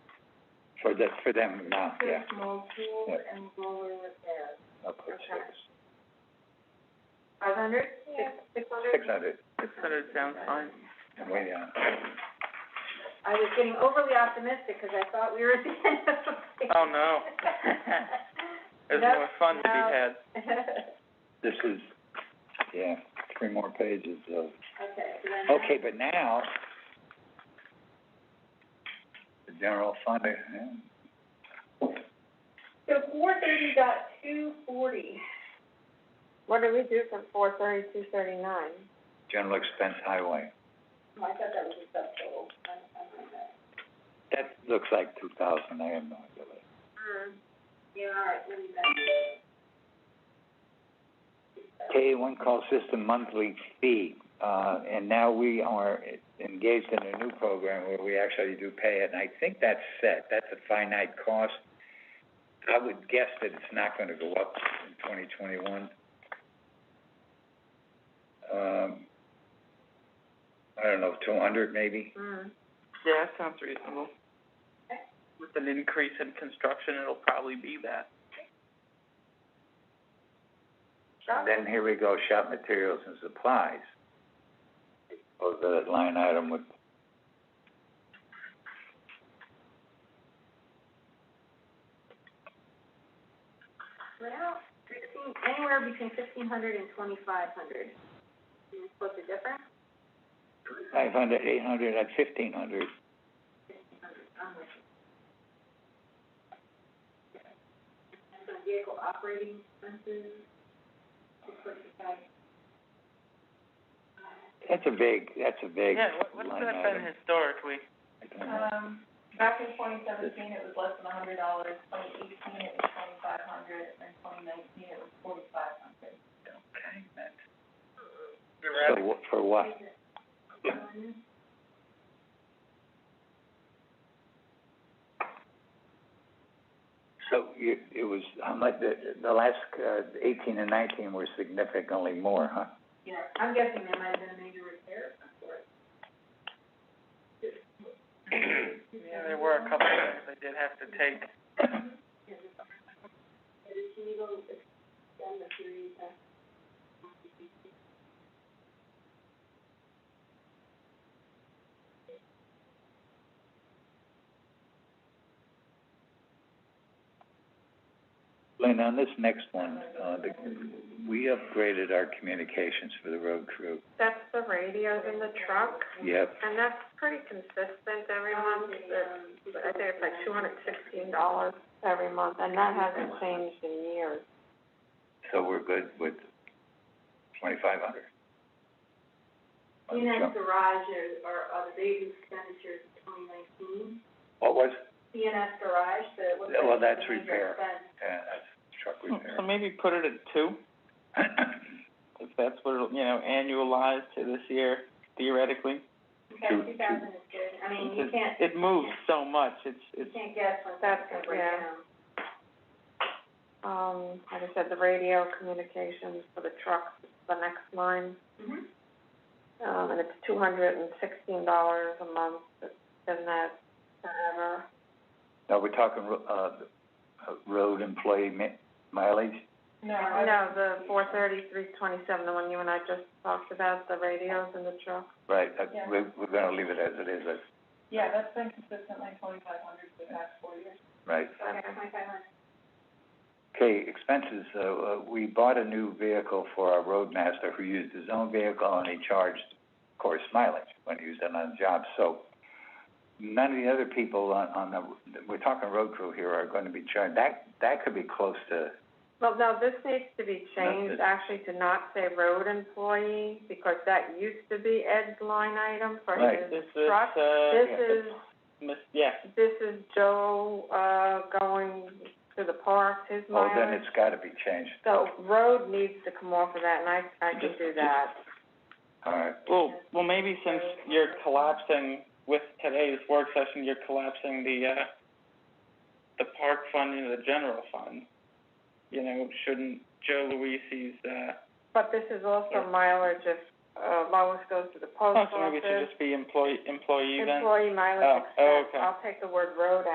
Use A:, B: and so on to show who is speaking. A: for the, for them now, yeah,
B: Says mold pool
A: Yeah.
B: and blower repairs,
A: I'll put
B: Okay. five hundred, six, six hundred?
A: six hundred, uh,
C: Six hundred sounds fine.
A: I'm way down.
B: I was getting overly optimistic, 'cause I thought we were at the end of the day.
C: Oh, no. There's
B: Nope,
C: more fun to be
B: no.
C: had.
A: This is, yeah, three more pages of,
B: Okay, so then.
A: okay, but now, the general fund, yeah.
B: So four thirty dot two forty. What do we do from four thirty to thirty-nine?
A: general expense highway.
B: Oh, I thought that was a subtotal. I- I don't know.
A: That looks like two thousand, I have no idea.
B: Hmm. Yeah, all right, we'll leave that.
A: K one call system monthly fee, uh, and now we are engaged in a new program where we actually do pay it, and I think that's set, that's a finite cost. I would guess that it's not gonna go up in twenty twenty-one. Um, I don't know, two hundred maybe?
B: Hmm.
C: Yeah, that sounds reasonable. With an increase in construction, it'll probably be that.
A: And Then here we go, shop materials and supplies. Oh, the line item with.
B: Well, fifteen, anywhere between fifteen hundred and twenty-five hundred. Can you split the difference?
A: Five hundred, eight hundred, at fifteen hundred.
B: I'm with you. And so vehicle operating expenses, just put it aside.
A: That's a big, that's a big
C: Yeah, what, what's
A: line
C: that been
A: item.
C: historically?
A: I don't know.
B: Um, back in twenty seventeen, it was less than a hundred dollars, twenty eighteen, it was twenty-five hundred, and twenty nineteen, it was forty-five hundred.
C: Okay, that's.
A: So wh- for what?
B: Um,
A: So you, it was, how much, the, the last, uh, eighteen and nineteen were significantly more, huh?
B: Yeah, I'm guessing there might have been a major repair of some sort.
C: Yeah, there were a couple of things I did have to take.
B: Can you go extend the period that?
A: Lynn, on this next one, uh, the, we upgraded our communications for the road crew.
B: That's the radios in the truck,
A: Yep,
B: and that's pretty consistent every month, it's, um, I think it's like two hundred sixteen dollars every month, and that hasn't changed in years.
A: so we're good with twenty-five hundred.
B: CNS Garage are, are, are the big expenditures of twenty nineteen.
A: What was,
B: CNS Garage, the, what's
A: Yeah,
B: that?
A: well, that's
B: major
A: repair.
B: expense?
A: uh, that's truck
C: So
A: repair.
C: maybe put it at two, if that's what, it'll- you know, annualized to this year theoretically.
B: Okay,
A: Two-
B: two thousand is good, I mean, you
C: It-
B: can't,
C: It moves so much, it's,
B: you
C: it's,
B: can't guess what that's gonna break down.
D: Um, like I said, the radio communications for the trucks, is the next line,
B: Mhm.
D: um, and it's two hundred and sixteen dollars a month, it's been that forever.
A: Now, we're talking, ro- uh, uh, road employee mi- mileage?
D: No, the four thirty, three twenty-seven, the one you and I just talked about, the radios in the truck.
A: Right, that, we're, we're gonna leave it as it is, that's,
B: Yeah, that's been consistently twenty-five hundred for the past four years.
A: right.
B: Okay, twenty-five hundred.
A: Okay, expenses, uh, uh, we bought a new vehicle for our roadmaster who used his own vehicle and he charged, of course, mileage when he used it on the job, so none of the other people on, on the, we're talking road crew here are gonna be charged, that, that could be close to,
D: Well, no, this needs to be changed,
A: That's it.
D: actually, to not say road employee, because that used to be Ed's line item for
A: Right.
D: his
C: this is,
D: truck.
C: uh,
D: This
A: yeah.
D: is
C: mis- yeah,
D: This is Joe, uh, going to the park, his
A: oh, then
D: mileage.
A: it's gotta be changed,
D: So road needs to come off of that, and I, I can do that.
A: all right.
C: Well, well, maybe since you're collapsing with today's work session, you're collapsing the, uh, the park fund into the general fund. You know, shouldn't Joe Luisi's, uh,
D: But this is also mileage if, uh, Lois goes to the post
C: oh, so maybe it should
D: office.
C: just be employee, employee then?
D: Employee mileage
C: Oh, oh,
D: expense,
C: okay.
D: I'll take the word road